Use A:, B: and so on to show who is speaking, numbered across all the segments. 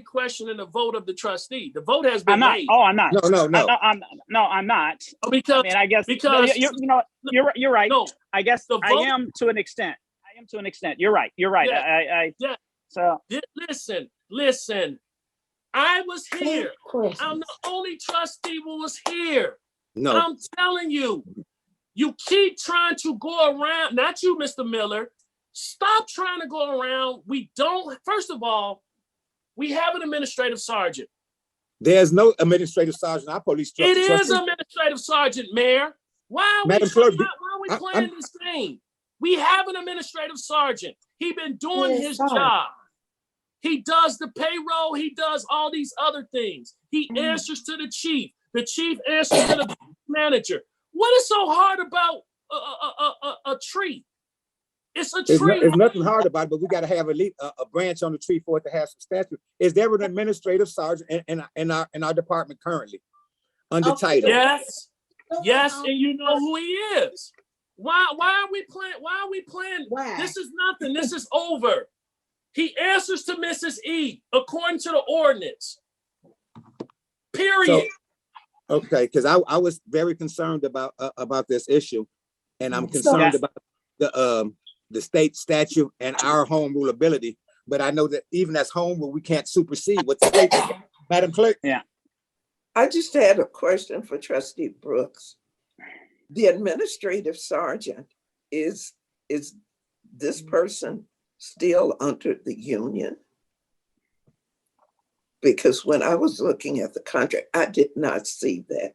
A: questioning the vote of the trustee. The vote has been
B: I'm not.
A: made.
B: Oh, I'm not.
C: No, no,
B: I'm
C: no.
B: not- I'm, no, I'm not. I
A: Because,
B: mean, I guess
A: because-
B: you, you- you know, you're right- you're right.
A: no,
B: I guess
A: the
B: I
A: vote-
B: am to an extent. I am to an extent. You're right. You're right.
A: Yeah.
B: I, I, I
A: Yeah.
B: So
A: di- listen, listen. I was here. I'm
D: Christmas.
A: the only trustee who was here.
C: No,
A: I'm telling you, you keep trying to go around, not you, Mr. Miller. Stop trying to go around. We don't, first of all, we have an administrative sergeant.
C: there's no administrative sergeant. Our police
A: It
C: trustee.
A: is administrative sergeant, Mayor. Why are we,
C: Madam
A: try-
C: Clerk,
A: why, why
C: I-
A: are we playing this game? We have an administrative sergeant. He been doing
D: Yes,
A: his
D: sir.
A: job. He does the payroll, he does all these other things. He
D: Mhm.
A: answers to the chief. The chief answers to the manager. What is so hard about a, a, a, a, a tree? It's a
C: There's, no-
A: tree.
C: there's nothing hard about it, but we gotta have a leaf, a, a branch on the tree for it to have some stature. Is there an administrative sergeant in, in, in our, in our department currently?
A: Oh,
C: Under
D: Okay.
C: title?
A: Yes. Yes,
D: Oh,
A: and you know who he is. Why why are we playing why are we playing
D: Why?
A: This is nothing. This is over. He answers to Mrs. E according to the ordinance. Period.
C: Okay, because I, I was very concerned about, uh, about this issue. And I'm
D: So-
C: concerned about the, um, the state statute and our home rule ability. But I know that even as home rule, we can't supersede what the state. Madam Clerk,
E: I just had a question for trustee Brooks. The administrative sergeant, is, is this person still under the union? Because when I was looking at the contract, I did not see that.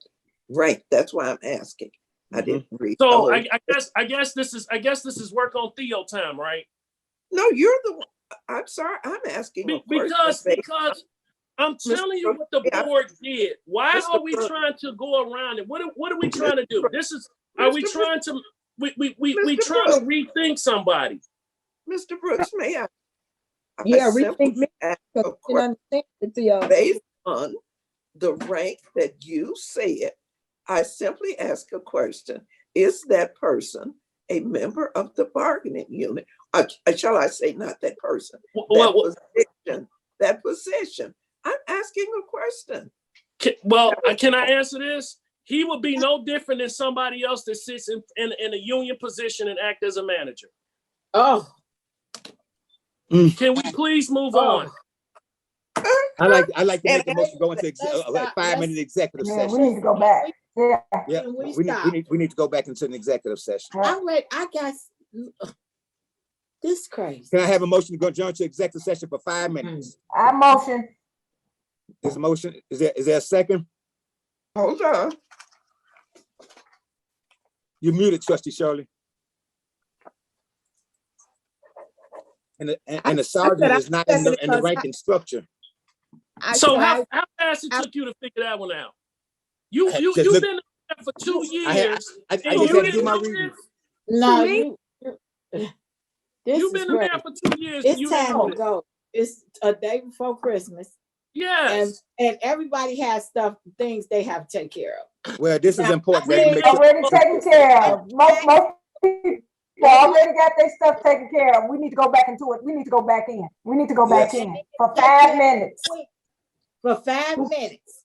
E: Right, that's why I'm asking. I
C: Mhm.
E: didn't read. Oh, the
A: So
E: whole-
A: I, I guess I guess this is I guess this is work on Theo time, right?
E: No, you're the, one. I'm sorry, I'm asking. a
A: Be-
E: question
A: because
E: based
A: because I'm
E: Mr.
A: telling you what the
E: Brooks, yeah.
A: board did. Why
E: Mr.
A: are we
E: Brooks.
A: trying to go around it? What are- what are we trying to do? This is are we
E: Mr. Brooks.
A: trying to we we we, we
E: Mr.
A: trying to rethink somebody?
E: Mr. Brooks, may I? I
D: Yeah,
E: simply
D: rethink me.
E: ask a
D: Because I
E: question.
D: didn't understand it till y'all-
E: based on the rank that you said, I simply ask a question. Is that person a member of the bargaining unit? Uh, uh, shall I say not that person?
A: Wh-
E: That
A: wh-
E: position, that position. I'm asking a question.
A: Ca- Well, I- can I answer this? He would be no different than somebody else that sits in, in, in a union position and act as a manager.
D: Oh,
A: Can we please move
D: Oh.
A: on?
C: I like, I like to
E: And
C: make a motion to go into exe-
D: let's
C: a- like
D: stop-
C: five minute executive
F: Man, we
C: session.
F: need to go back. Yeah,
C: Yeah,
D: Can we
C: we need, we
D: stop?
C: need, we need to go back into an executive session.
D: I wait, I got s- this crazy.
C: Can I have a motion to go adjourn to executive session for five minutes?
F: I motion.
C: Is a motion, is there, is there a second?
E: Hold on.
C: You muted trustee Shirley. And, the- and- and the sergeant is not in the, in the ranking structure.
D: I
A: So
D: tried-
A: how, how fast it took you to figure that one out? You,
C: I-
A: you,
C: just
A: you've
C: look-
A: been there for two
C: I had-
A: years.
C: I, I
A: and you
C: just had to
A: didn't
C: do my
A: know
C: reading.
A: this?
D: No,
F: me?
D: you. you- This
A: You've
D: is
A: been there
D: crazy.
A: for two years. and you
D: It's
A: didn't
D: time
A: know
D: to
A: this.
D: go. It's a day before Christmas and,
A: Yes.
D: and everybody has stuff, things they have to take care of.
C: Well, this is
D: Now,
C: important.
D: I
C: Let's
D: really
C: make sure-
F: Already taken care of. Most, most people already got their stuff taken care of. We need to go back into it. We need to go back in. We need to go back
C: Yes.
F: in for five minutes.
D: For five minutes,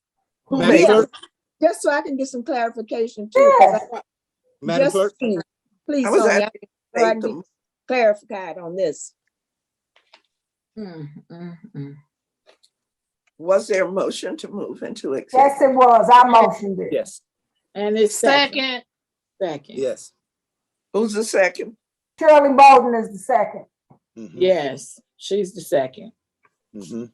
C: Madam Clerk,
G: Just so I can get some clarification too. 'cause I
F: Yes.
G: want-
C: Madam
G: just-
C: Clerk,
G: Please,
E: I was
G: Sonya,
E: asking
G: I
E: based
G: need
E: on-
G: clarified on this.
A: Mm,
E: Was there a motion to move into executive?
F: Yes, it was. I motioned it.
C: yes,
D: and it's second,
G: Second,
D: second,
C: yes.
E: Who's the second?
F: Shirley Bolden is the second.
C: Mhm,
D: yes, she's the second.
C: mhm.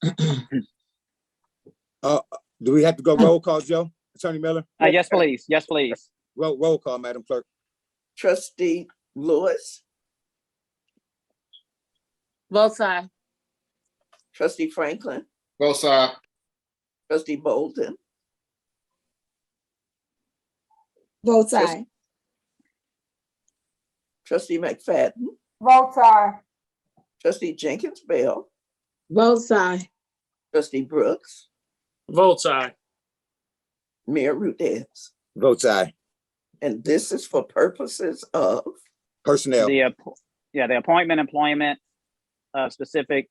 C: Uh, do we have to go roll call, Joe? Attorney Miller,
B: uh, yes, please. Yes, please.
C: roll, roll call, Madam Clerk.
E: Trustee Lewis,
D: Both sides.
E: trustee Franklin,
H: Both side.
E: trustee Bolden,
G: both sides.
E: trustee McFadden,
F: Votes are
E: trustee Jenkins Bell,
D: Both sides.
E: trustee Brooks,
A: Votes aye.
E: Mayor Rudez.
C: Votes aye.
E: And this is for purposes of,
C: Personnel.
B: The, app- yeah, the appointment, employment, uh, specific